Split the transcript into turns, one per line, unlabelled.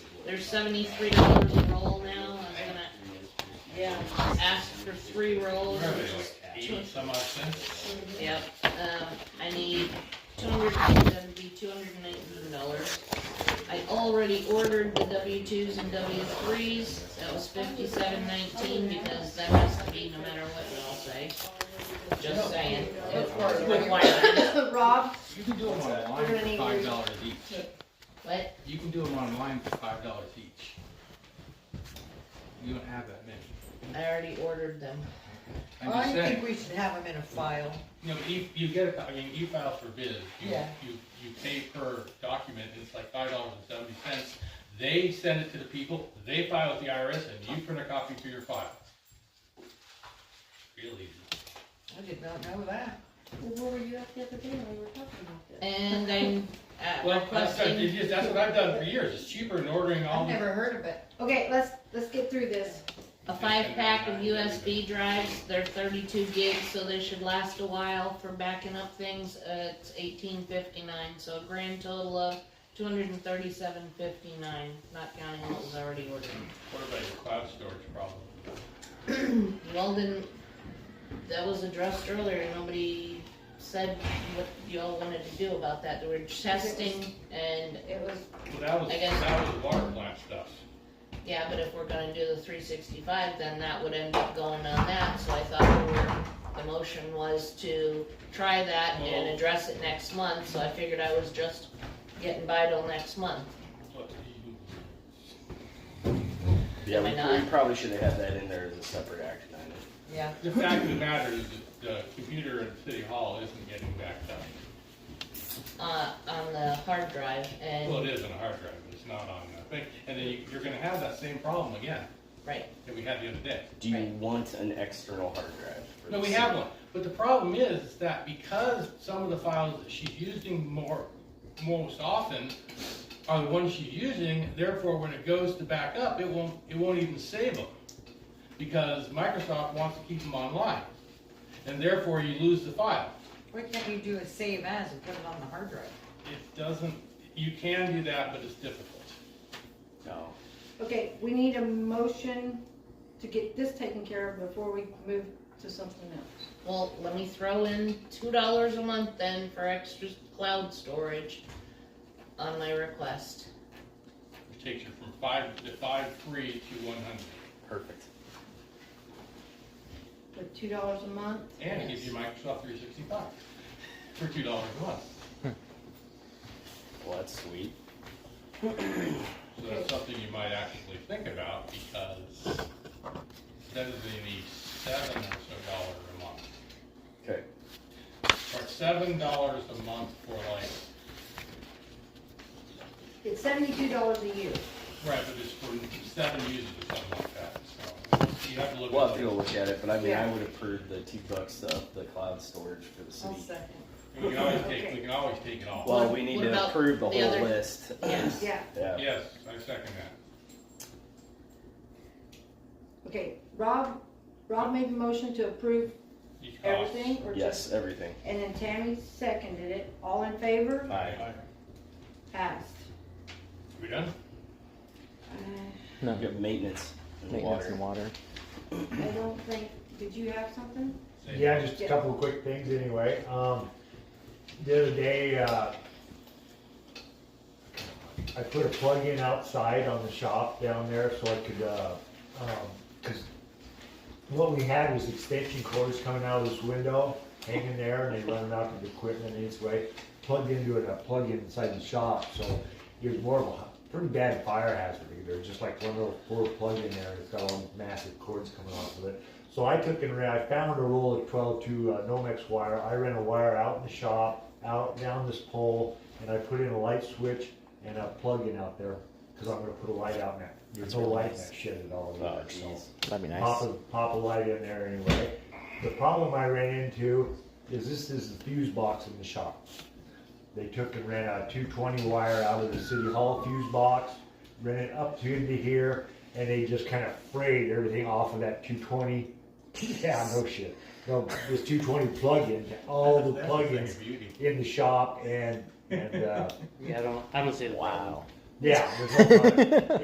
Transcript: There's seventy-three dollars a roll now, I'm gonna, yeah, ask for three rolls.
Eighty some odd cents.
Yep, um, I need two hundred and seventy, two hundred and nineteen dollars. I already ordered the W twos and W threes, that was fifty-seven nineteen, because that has to be no matter what we all say. Just saying. It- with line items.
Rob,
You can do them online
We're gonna
for
need
five
you.
dollars each.
What,
You can do them online for five dollars each. You don't have that many.
I already ordered them.
I'm
I
just
think
saying,
we should have them in a file.
you know, you, you get a, I mean, you file for bid, you,
Yeah.
you, you pay per document, it's like five dollars and seventy cents. They send it to the people, they file with the IRS, and you print a copy for your file. Real easy.
I did not know that.
Well, where were you at the other day when we were talking about this?
And I'm, uh,
Well, that's,
requesting,
that's, that's what I've done for years, it's cheaper than ordering all
I've
the
never heard of it.
okay, let's, let's get through this.
a five-pack of USB drives, they're thirty-two gigs, so they should last a while for backing up things, uh, it's eighteen fifty-nine, so a grand total of two hundred and thirty-seven fifty-nine, not counting what was already ordered.
What about your cloud storage problem?
Y'all didn't, that was addressed earlier, nobody said what y'all wanted to do about that, they were testing, and,
It was,
Well, that was,
I guess-
that was water plant stuff.
yeah, but if we're gonna do the three sixty-five, then that would end up going on that, so I thought we were The motion was to try that and
Well-
address it next month, so I figured I was just getting by till next month.
What do you-
Yeah,
Am I
we,
not?
we probably should have had that in there as a separate action item.
Yeah.
The fact of the matter is that the computer at City Hall isn't getting backed up.
Uh, on the hard drive
Well,
and,
it is on a hard drive, but it's not on a thing. And then you- you're gonna have that same problem again
right,
that we had the other day.
Do you
Right.
want an external hard drive? for
No,
the
we
city?
have one. But the problem is that because some of the files that she's using more, most often are the ones she's using, therefore when it goes to back up, it won't, it won't even save them. Because Microsoft wants to keep them online. And therefore you lose the file.
Why can't you do a save as and put it on the hard drive?
It doesn't, you can do that, but it's difficult.
No.
okay, we need a motion to get this taken care of before we move to something else.
well, let me throw in two dollars a month then for extra cloud storage on my request.
It takes you from five, to five free to one hundred.
Perfect.
For two dollars a month,
And it gives you Microsoft three sixty-five for two dollars a month.
Well, that's sweet.
So that's something you might actually think about because that is in the seven or so dollar a month.
Okay.
Or seven dollars a month for like,
it's seventy-two dollars a year.
right, but it's for seven users or something like that, so you have to look.
We'll
at
have to go look at it, but I mean, I
Yeah.
would approve the two bucks of the cloud storage for the
I'll
city.
second.
We can always take, we can always take it off.
Well, we need
What
to
about
approve the
the
whole
other-
list.
Yeah.
Yeah,
Yeah.
Yes, I second that.
okay, Rob, Rob made the motion to approve
Each cost.
everything or just?
Yes, everything.
And then Tammy seconded it, all in favor?
Aye.
Passed.
We done?
Uh,
You have maintenance and
Maintenance and
water.
water.
I don't think, did you have something?
Say
Yeah, just a couple of quick things anyway. Um, the other day, uh, I put a plug in outside on the shop down there so I could, uh, um 'cause cause what we had was extension cords coming out of this window, hanging there, and they running out to the equipment and it's way plugged into it, a plug in inside the shop, so there's more of a pretty bad fire hazard. There's just like one little poor plug in there, and it's got all massive cords coming off of it. So I took and ran, I found a roll of twelve to uh, Nomex wire, I ran a wire out in the shop, out down this pole, and I put in a light switch and a plug-in out there, cause I'm gonna put a light out in that, there's no light in that shed at all.
Oh,
either, so
geez.
That'd be
pop
nice.
a, pop a light in there anyway. The problem I ran into is this is the fuse box in the shop. They took and ran a two twenty wire out of the city hall fuse box, ran it up to into here, and they just kind of frayed everything off of that two twenty. Yeah, no shit. No, this two twenty plug-in, all
That's
the
a thing
plug-ins
of beauty.
in the shop and, and, uh,
Yeah, I don't, I don't see the
Wow.
yeah. there's no-